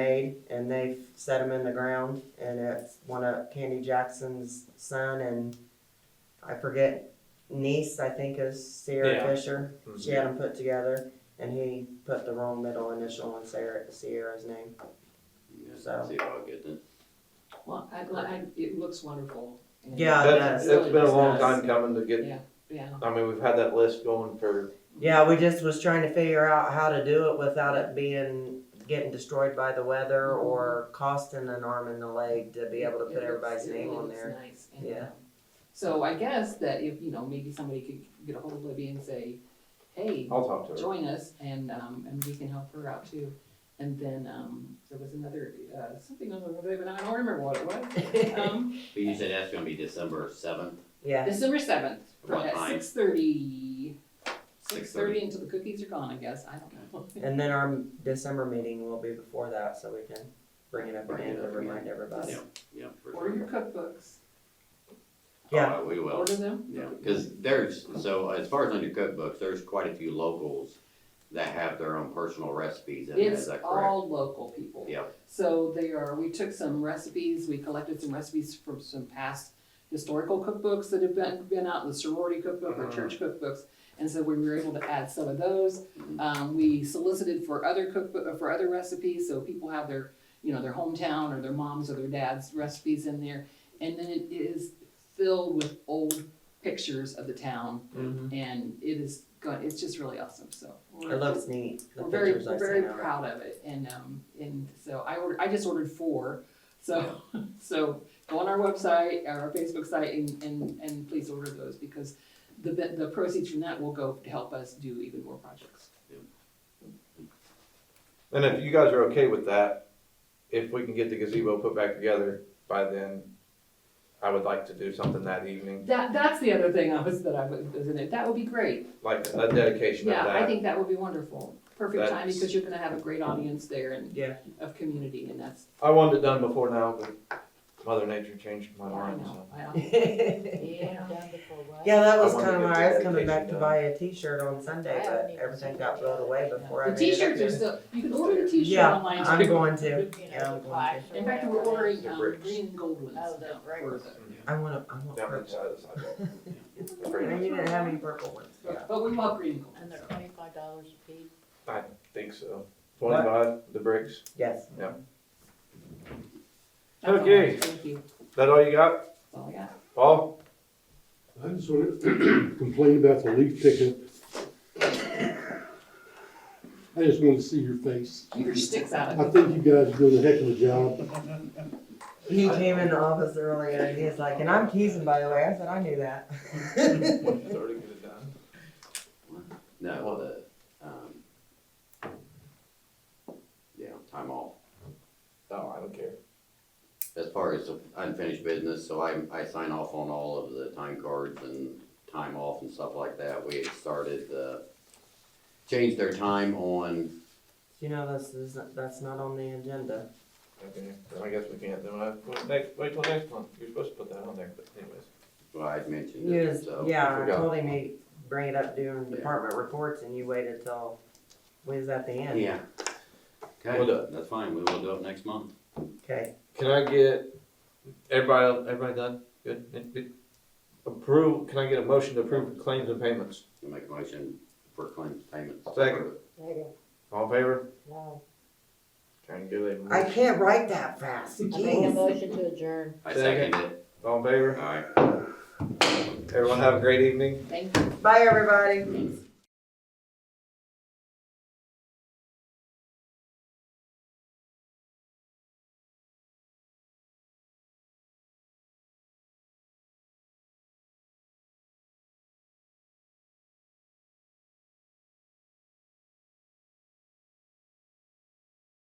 made and they set them in the ground and it's one of Candy Jackson's son and I forget niece I think is Sierra Yeah. Fisher. She had them put together and he put the wrong middle initial on Sarah, Sierra's name. So. See how it gets it. Well, I, I, it looks wonderful. and- Yeah, it That's, does. that's been a long It time does. coming to get, Yeah, yeah. I mean, we've had that list going for, Yeah, we just was trying to figure out how to do it without it being getting destroyed by the weather or costing an arm and a leg to be able to It put looks- everybody's it name on looks there. nice, and, Yeah. um, So I guess that if, you know, maybe somebody could get a hold of Libby and say, hey, I'll talk to her. join us and, um, and we can help her out too. And then, um, there was another, uh, something on the, but I don't remember what it was. Um, But you said that's gonna be December seventh, Yeah, December seventh, What at time? six thirty. 6:30. Six thirty until the cookies are gone, I guess, I don't know. and then our December meeting will be before that, so we can bring it up Bring it again to up again. remind everybody. yeah, yeah. for Order sure. your cookbooks, Yeah. Oh, We will, order them. yeah, cause there's, so as far as under cookbooks, there's quite a few locals that have their own personal recipes in there, is It's that correct? all local people. Yeah. So they are, we took some recipes, we collected some recipes from some past historical cookbooks that have been, been out, the sorority cookbook Uh-huh. or church cookbooks. And so we were able to add some of those. Mhm. Um, we solicited for other cookbook, uh, for other recipes, so people have their, you know, their hometown or their mom's or their dad's recipes in there. And then it is filled with old pictures of the town Mm-hmm. Mhm. and it is, go- it's just really awesome, so. we're- It looks neat, the we're very, pictures we're I very sent out. proud of it, and, um, and so I ordered, I just ordered four, so, so go on our website, our Facebook site, and, and, and please order those, because the, be- the proceeds from that will go to help us do even more projects. And if you guys are okay with that, if we can get the gazebo put back together by then, I would like to do something that evening, That, that's the other thing I was, that I was, isn't it, that would be great, like a dedication of yeah, I that. think that would be wonderful, perfect time, That's- because you're gonna have a great audience there and. Yeah. Of community, and that's, I wanted it done before now, but Mother Nature changed my I mind, know, so. I know. Yeah, yeah. that was I wanted kinda to why get I was the coming back to dedication buy a t-shirt on Sunday, I but haven't even everything seen got it. blown away before I The made it up t-shirts are there. still, you can order the t-shirt Yeah, online. too. I'm going to, You know, yeah, I'm the going plaques to. or In fact, we're whatever. ordering The um, bricks. green and gold ones. Oh, the now bricks. for the- I wanna, I want Down the purple. side of the sidewalk. And Pretty you much. didn't have any purple ones, yeah. But we love green and gold. And they're so. twenty-five dollars a piece. I think so. Twenty-five, the bricks. Is Yes. That's all. Okay. Thank you. that all you got? That's all I got. Paul? I just want to complain about the leaf pickup. I just want to see your face. Keep your sticks out I of it. think you guys are doing a heck of a job. He came in the office earlier and he's like, and I'm teasing, by the way, I said, I knew that. Already get it done. No, the, um, yeah, time off, No, I don't care. as far as unfinished business, so I, I sign off on all of the time cards and time off and stuff like that, we had started, uh, changed their time on You know, that's, that's not- that's not on the agenda. Okay, then I guess we can't, then I, well, next, wait till next month, you're supposed to put that on there, but anyways. Well, I'd mentioned it, Yes, so. yeah, I forgot. told him he bring it up during Yeah. department reports and you waited till, when is that the end? Yeah. We'll do Okay, it. that's fine, we will do it next month. Okay, Can I get, everybody, everybody done? Good, Good, good. Approve, can I get a motion to approve claims and payments? We'll make a motion for claims payments. Second. All in favor? Wow. Trying to get a. I can't write that fast, I make a jeez. motion to adjourn. I second it, All in favor? alright. Everyone have a great evening. Thank you. Bye, everybody. Mm.